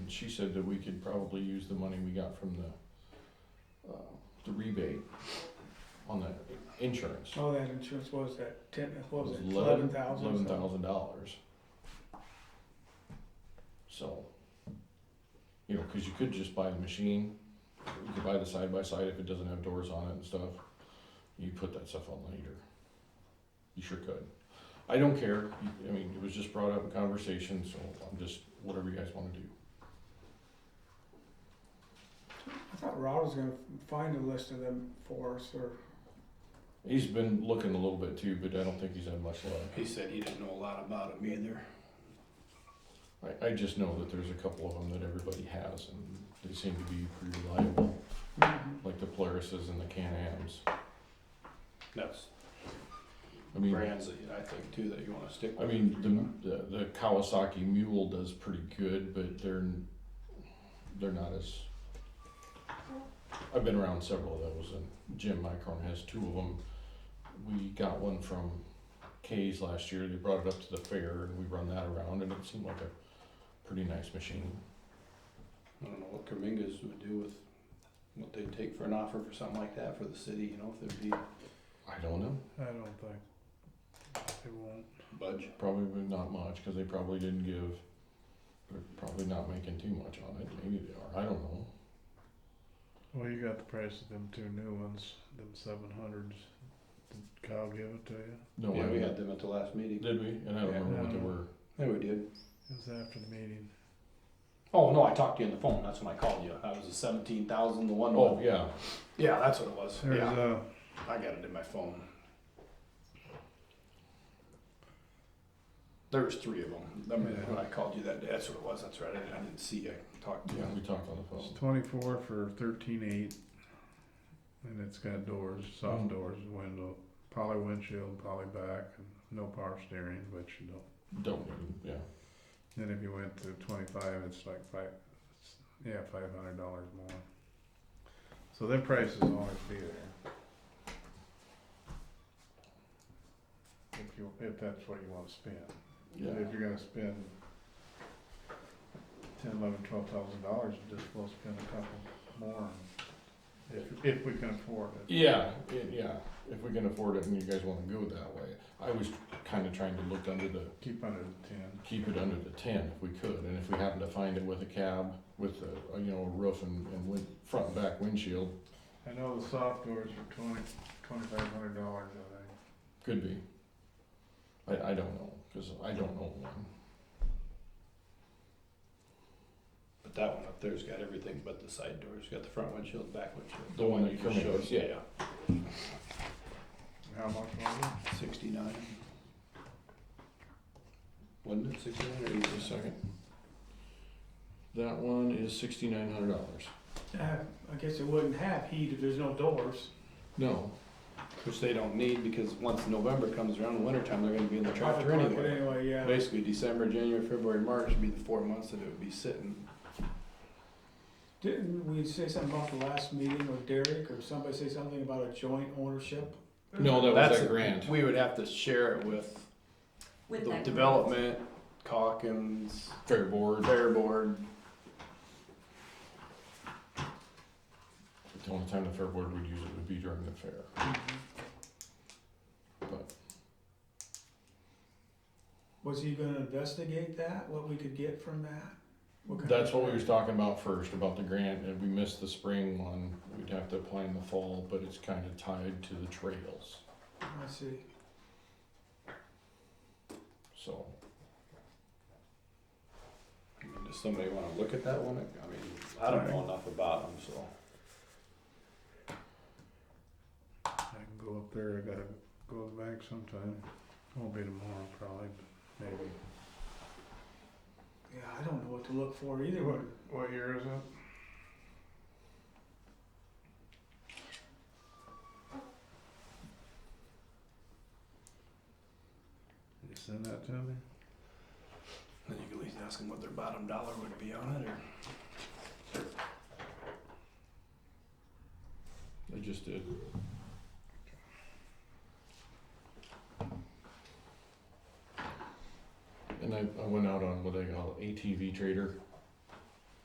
she said that we could probably use the money we got from the, uh, the rebate on the insurance. Oh, that insurance, what was that, ten, what was it, Eleven- eleven thousand? Eleven thousand dollars. So, you know, cause you could just buy the machine, you could buy the side by side if it doesn't have doors on it and stuff, you put that stuff on later. You sure could. I don't care, You- I mean, it was just brought up in conversation, so I'm just, whatever you guys wanna do. I thought Rod was gonna find a list of them for us, or, He's been looking a little bit too, but I don't think he's had much luck. He said he didn't know a lot about them either. I, I just know that there's a couple of them that everybody has and they seem to be pretty reliable. mm-hmm. like the Polarises and the Can-Ams. That's I mean, brands that I think too that you want to stick. I with. mean, the, the the Kawasaki Mule does pretty good, but they're they're not as. I've been around several of those, and Jim Micron has two of them. We got one from K's last year. They brought it up to the fair, and we run that around, and it seemed like a pretty nice machine. I don't know what Kamingas would do with what they'd take for an offer for something like that for the city. You know, if it'd be I don't know, I don't think they won't. budge. probably not much because they probably didn't give. They're probably not making too much on it. Maybe they are. I don't know. Well, you got the price of them two new ones, them seven hundreds. Did Kyle give it to you? No, yeah, I we had them at the last meeting. Did we? And I don't Yeah. remember what they Um, were. Yeah, we did. It was after the meeting. Oh no, I talked to you on the phone. That's when I called you. That was the seventeen thousand. The one. Oh, with- yeah. yeah, that's what it was. There's yeah, uh, I got it in my phone. There was three of them. I mean, when I called you that day, that's what it was. That's right. I didn't, I didn't see. I talked to you. Yeah, we talked on the phone. it's twenty-four for thirteen eight, and it's got doors, soft Mm. doors, window, poly windshield, poly back, and no power steering, which you don't. Don't, we? yeah. Then if you went to twenty-five, it's like five, it's, yeah, five hundred dollars more. So their prices will always be there. If you, if that's what you wanna spend, Yeah. if you're gonna spend ten, eleven, twelve thousand dollars, you just will spend a couple more. If, if we can afford it. Yeah, i- yeah. If we can afford it and you guys wanna go that way. I was kinda trying to look under the, Keep under the ten. keep it under the ten if we could. And if we happen to find it with a cab, with a, a, you know, a roof and, and with front and back windshield, I know the soft doors are twenty, twenty-five hundred dollars, I think. could be. I, I don't know, cause I don't know one. But that one up there's got everything but the side doors. Got the front windshield, back windshield. The one that you come just in, showed. yeah. How much was it? Sixty-nine. Wasn't it sixty-nine or Just a eighty-seven? second. That one is sixty-nine hundred dollars. uh, I guess it wouldn't have heat if there's no doors. No, Which they don't need because once November comes around, the winter time, they're gonna be in the tractor Park it anyway. Anyway, yeah, Basically, December, January, February, March would be the four months that it would be sitting. didn't we say something about the last meeting, or Derek, or somebody say something about a joint ownership? No, that was That's that a- grant. We would have to share it with With the that. development, Calkins, fair board. Fair Board. The only time the fair board would use it would be during the fair. Was he gonna investigate that, what we could get from that? kind That's of- what we was talking about first, about the grant, and we missed the spring one. We'd have to apply in the fall, but it's kind of tied to the trails, I see, so. I mean, Does somebody wanna look at that one? I mean, I don't know enough about them, so. I can go up there, I gotta go back sometime, won't be tomorrow probably, but maybe. yeah, I don't know what to look for either, one. What year is it? You send that to me? Then you can at least ask them what their bottom dollar would be on it, or. I just did. And I, I went out on what they call ATV trader